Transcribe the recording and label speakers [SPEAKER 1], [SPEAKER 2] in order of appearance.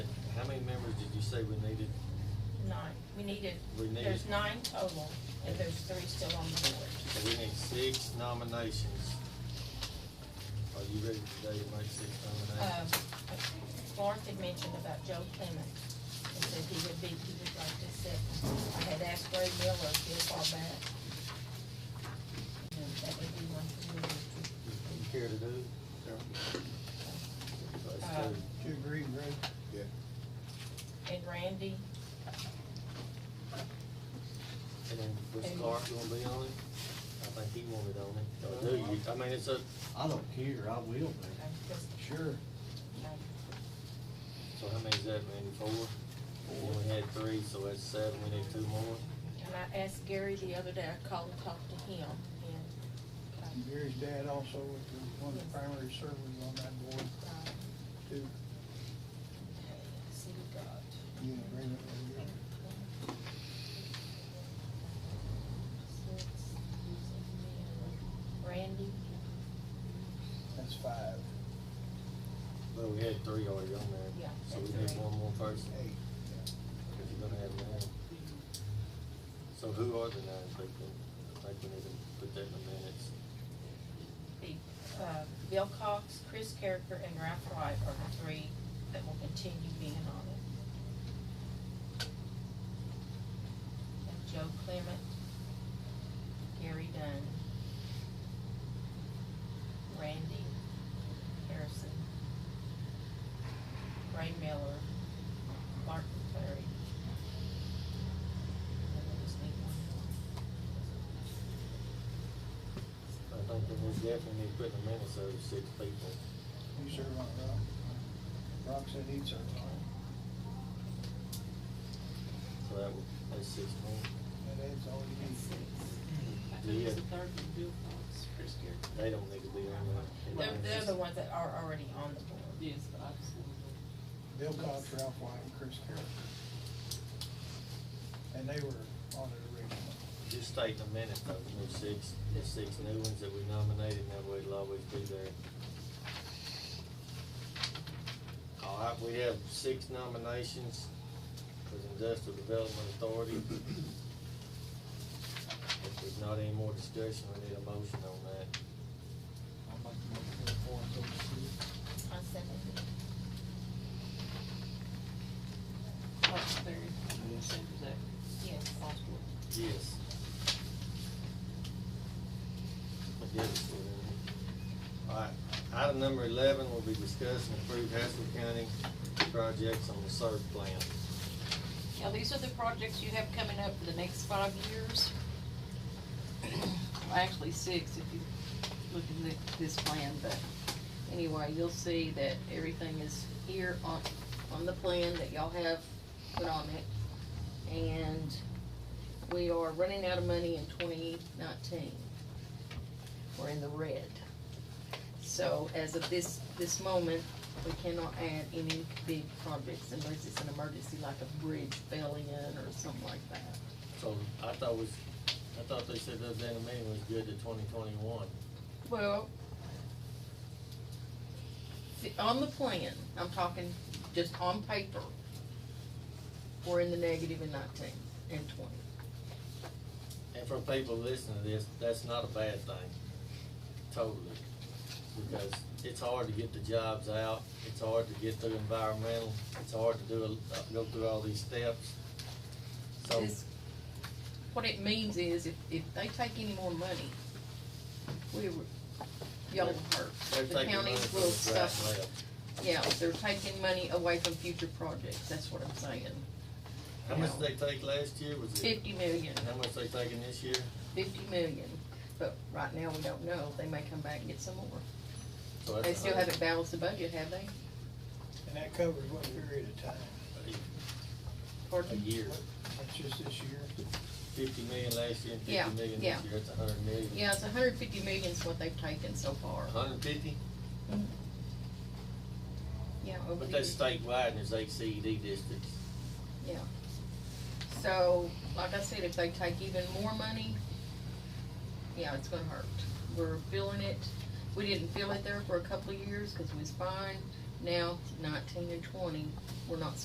[SPEAKER 1] say we needed?
[SPEAKER 2] Nine, we needed,
[SPEAKER 1] We need-
[SPEAKER 2] there's nine total, and there's three still on the board.
[SPEAKER 1] So we need six nominations. Are you ready today to make six
[SPEAKER 2] Um,
[SPEAKER 1] nominations?
[SPEAKER 2] Clark had mentioned about Joe Clement, and said he would be, he would like to sit. I had asked Ray Miller a few far back. And that would be one for me. Um,
[SPEAKER 1] You you care to do? Carol? Let's
[SPEAKER 2] Uh,
[SPEAKER 1] do it.
[SPEAKER 3] Do you agree, Greg?
[SPEAKER 1] Yeah.
[SPEAKER 2] And Randy,
[SPEAKER 1] And then was
[SPEAKER 2] And-
[SPEAKER 1] Clark gonna be on it? I think he wanted on it. Or do you? I mean, it's a,
[SPEAKER 3] I don't care, I will be.
[SPEAKER 2] uh, just,
[SPEAKER 3] Sure.
[SPEAKER 2] uh,
[SPEAKER 1] so how many is that, Randy? Four? We only had three, so that's seven. We need two more.
[SPEAKER 2] and I asked Gary the other day, I called and talked to him, and, um,
[SPEAKER 3] Gary's dad also was one of the primary servers on that board
[SPEAKER 2] um,
[SPEAKER 3] too.
[SPEAKER 2] okay, let's see, we got.
[SPEAKER 3] You in agreement with Gary?
[SPEAKER 2] Randy,
[SPEAKER 3] That's five,
[SPEAKER 1] But we had three already on there.
[SPEAKER 2] Yeah,
[SPEAKER 1] So we
[SPEAKER 2] that's
[SPEAKER 1] need
[SPEAKER 2] right.
[SPEAKER 1] one more person.
[SPEAKER 3] eight.
[SPEAKER 1] If you're gonna have nine. So who are the nine people? I think we need to put that in the minutes.
[SPEAKER 2] the, uh, Bill Cox, Chris Carricker, and Ralph Wright are the three that will continue being on it. And Joe Clement, Gary Dunn, Randy Harrison, Ray Miller, Martin Clary. And we'll just need one
[SPEAKER 1] I
[SPEAKER 2] more.
[SPEAKER 1] think that we definitely need to put in the minutes those six people.
[SPEAKER 3] You serve on it, Rob? Rob said he'd serve on
[SPEAKER 1] So that would, that's six more.
[SPEAKER 3] it. That adds all you
[SPEAKER 4] And
[SPEAKER 3] need.
[SPEAKER 4] six. I thought
[SPEAKER 2] Mm-hmm.
[SPEAKER 4] it was the
[SPEAKER 1] Yeah.
[SPEAKER 4] third one, Bill Fox, Chris Garrett.
[SPEAKER 1] They don't need to be on there.
[SPEAKER 2] They're, they're the ones that are already on the board.
[SPEAKER 4] Yes, but I just wanted to.
[SPEAKER 3] Bill Cox, Ralph White, and Chris Carroll. And they were on it originally.
[SPEAKER 1] Just state in the minutes those new six, the six new ones that we nominated, and that way it'll always be there. All right, we have six nominations for the Industrial Development Authority. If there's not any more discussion, we need a motion on that.
[SPEAKER 3] I'd like to make a report to the city.
[SPEAKER 2] I second it.
[SPEAKER 4] Fox Berry, Sanders Act,
[SPEAKER 2] Yes.
[SPEAKER 4] Osborne.
[SPEAKER 1] Yes. I guess it's within. All right, item number eleven will be discussed and approved Haskell County projects on the SERB plan.
[SPEAKER 4] Now, these are the projects you have coming up for the next five years. Well, Actually, six, if you look in the, this plan, but anyway, you'll see that everything is here on, on the plan that y'all have put on it. And we are running out of money in twenty nineteen. We're in the red. So as of this, this moment, we cannot add any big projects unless it's an emergency like a bridge fell in or something like that.
[SPEAKER 1] So I thought was, I thought they said the other day in the meeting was good to twenty twenty-one.
[SPEAKER 4] Well, the- on the plan, I'm talking just on paper, we're in the negative in nineteen and twenty.
[SPEAKER 1] And for people listening to this, that's not a bad thing, totally. Because it's hard to get the jobs out, it's hard to get through environmental, it's hard to do, a- go through all these steps. So,
[SPEAKER 4] This- What it means is if, if they take any more money, we, were- y'all will
[SPEAKER 1] they're
[SPEAKER 4] hurt.
[SPEAKER 1] taking
[SPEAKER 4] The
[SPEAKER 1] money
[SPEAKER 4] counties
[SPEAKER 1] from
[SPEAKER 4] will
[SPEAKER 1] us right and
[SPEAKER 4] suffer.
[SPEAKER 1] left.
[SPEAKER 4] Yeah, they're taking money away from future projects, that's what I'm saying.
[SPEAKER 1] How much did they take last year, was it?
[SPEAKER 4] Fifty million.
[SPEAKER 1] And how much they taking this year?
[SPEAKER 4] fifty million, but right now we don't know, they may come back and get some more.
[SPEAKER 1] So that's
[SPEAKER 4] They
[SPEAKER 1] a
[SPEAKER 4] still
[SPEAKER 1] hundred-
[SPEAKER 4] haven't balanced the budget, have they?
[SPEAKER 3] And that covers what period of time?
[SPEAKER 1] A
[SPEAKER 4] Pardon?
[SPEAKER 1] year,
[SPEAKER 3] That's just this year?
[SPEAKER 1] fifty million last year and
[SPEAKER 4] Yeah,
[SPEAKER 1] fifty million
[SPEAKER 4] yeah.
[SPEAKER 1] this year, that's a hundred million.
[SPEAKER 4] Yeah, it's hundred fifty million is what they've taken so far. Mm-hmm.
[SPEAKER 1] Hundred fifty,
[SPEAKER 4] Yeah, over
[SPEAKER 1] but
[SPEAKER 4] the
[SPEAKER 1] that's
[SPEAKER 4] years.
[SPEAKER 1] statewide and there's eight CED E districts.
[SPEAKER 4] Yeah. So, like I said, if they take even more money, yeah, it's gonna hurt. We're feeling it. We didn't feel it there for a couple of years, cause we was fine. Now, nineteen and twenty, we're not